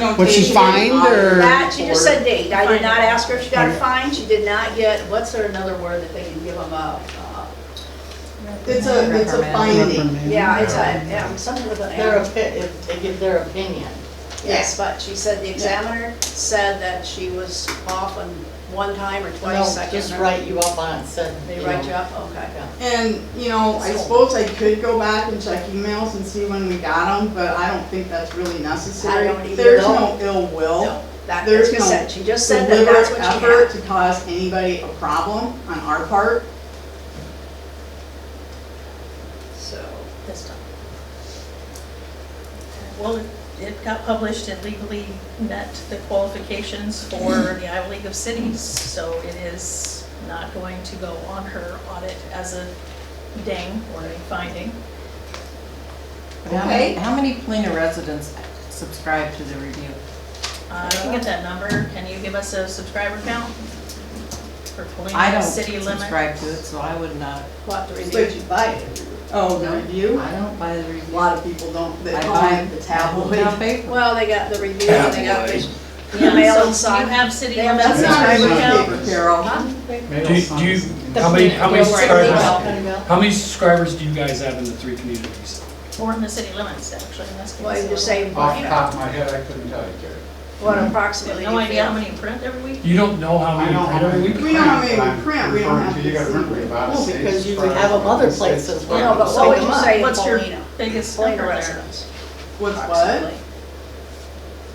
don't Was think she fined bothered or- That, she just said date, I did Fine. not ask her if she got a Fine. fine, she did not get, what's there another word that they can give them a, uh, It's a, it's a finding, Reprimand. yeah, it's a, yeah, something with an their, arrow. opi- if they give their opinion. Yes, but she said the examiner said that she was off on one time or No, twice, I can't just remember. write you up on it, said. They write you up, okay. And, you know, I suppose I could go back and check emails and see when we got them, but I don't think that's really necessary. I don't either, There's no. no ill will. No, that, There's that's what she no said, she just said that that's Deliberate what she effort had. to cause anybody a problem on our part. So, this time. Well, it- it got published and legally met the qualifications for the Iowa League of Cities, so it is not going to go on her audit as a ding or a finding. How many- Okay. How many Plena residents subscribe to the review? Uh, I can get that number, can you give us a subscriber count? For I Polina don't city limit? subscribe to it, so I would not, we'll have to review. But you buy it. Oh, the review? I don't buy the A review. lot of people don't, they I call buy it the hometown tabloid. paper. Well, they got the review, and they got the Yeah, mail so inside. You have city They have limit That's not subscriber a count? paper, Carol. Do you, do you, how many, how The Sunday Bell. many subscribers, how many subscribers do you guys have in the three communities? Or in the city limits, actually, in this case. Well, you just say, Off you the know, top of my head, I couldn't tell you, Jerry. what I have approximately No you idea how feel. many print every week? You don't know how many I know print how many every we week? We don't have any print, but I'm print, we don't referring have to- You to gotta see. remember about No, states because you far have as other states places far where- No, as- but what would you say in What's your Polina? biggest Polina number there? residents, What's what? approximately.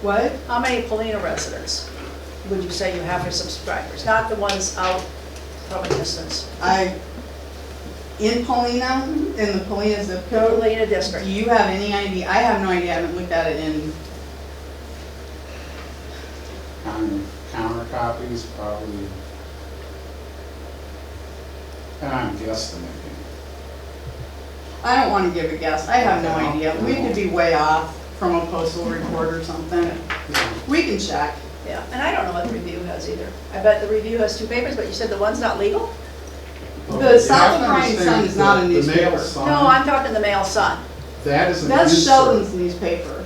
What? How many Polina residents would you say you have for subscribers? Not the ones out from a distance. I, in Polina, in the Polina zip code, Polina Do district. you have any idea? I have no idea, I haven't looked at it in, Counter counter copies, probably. And I'm guesstimating. I don't wanna give a guess, I have no idea. We could be way off from a postal report or something. We can check. Yeah, and I don't know what the review has either. I bet the review has two papers, but you said the one's not legal? The South Bryan Sun is not a The newspaper. Mail Sun, No, I'm talking the Mail Sun. that is an insert. That's Sheldon's newspaper.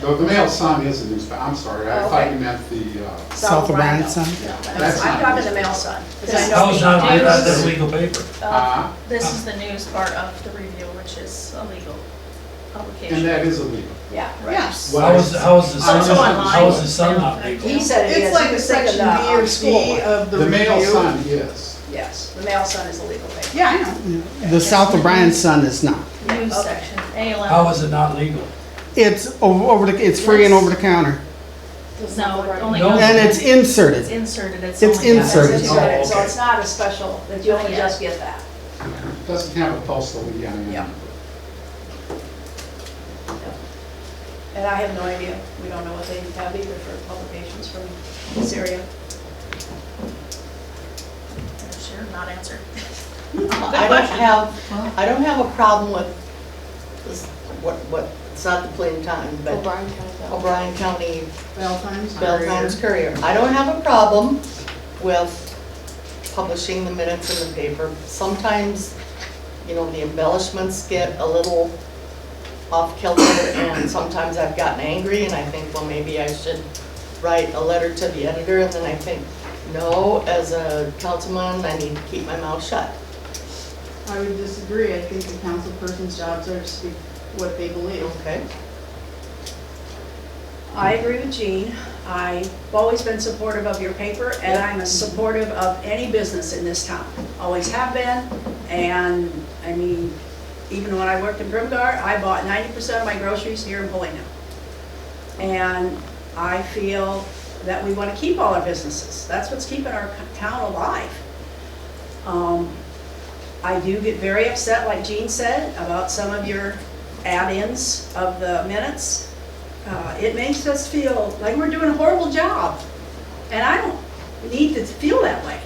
The the Mail Sun is a newspaper, I'm sorry, I thought Okay. you meant the, uh, South of Rhino. Branson. yeah, that's I'm not. talking the Mail Sun. 'cause I know How is that, Yes. that's legal paper? Uh, Uh, This is the news part of the review, which is a legal and publication. that is illegal. Yeah, right. Yes. How is, how is the sun, Also online. how is the sun not legal? He said it It's is. like He a was thinking section B the, um, or school C one. of the The Mail review. Sun is. Yes, the Mail Sun is a legal paper. Yeah, I know. The South of Bryan Sun is not. News Okay. section, ALM. How is it not legal? It's over, over the, it's free and over the counter. No, it only No. goes. And it's It's inserted. inserted, it's only. It's got- That's Inserted. inserted, so Oh, okay. it's not a special, that you only just get that. It Doesn't have a postal, yeah, Yeah. yeah. And I have no idea, we don't know what they have either for publications from this area. Sure, not answered. I don't have, I don't have a problem with this, what, what, it's not the plain time, but O'Brien County. O'Brien County Bell Times. Bell Courier. Times Courier. I don't have a problem with publishing the minutes in the paper. Sometimes, you know, the embellishments get a little off kilter and sometimes I've gotten angry and I think, well, maybe I should write a letter to the editor and then I think, no, as a councilman, I need to keep my mouth shut. I would disagree. I think the council person's jobs are to speak what they believe. Okay. I agree with Jean. I've always been supportive of your paper, and I'm a supportive of any business in this town. Always have been, and, I mean, even when I worked in Brimgar, I bought ninety percent of my groceries here in Polina. And I feel that we want to keep all our businesses. That's what's keeping our town alive. Um, I do get very upset, like Jean said, about some of your add-ins of the minutes. Uh, It makes us feel like we're doing a horrible job, and I don't need to feel that way.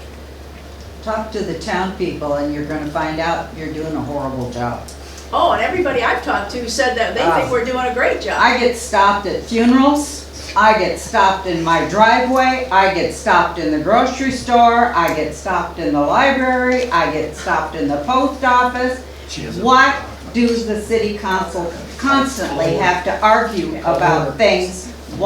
Talk to the town people and you're gonna find out you're doing a horrible job. Oh, and everybody I've talked to said that they think we're doing a great job. I get stopped at funerals, I get stopped in my driveway, I get stopped in the grocery store, I get stopped in the library, I get stopped in the post office. She has a- What do the city council constantly have to argue about things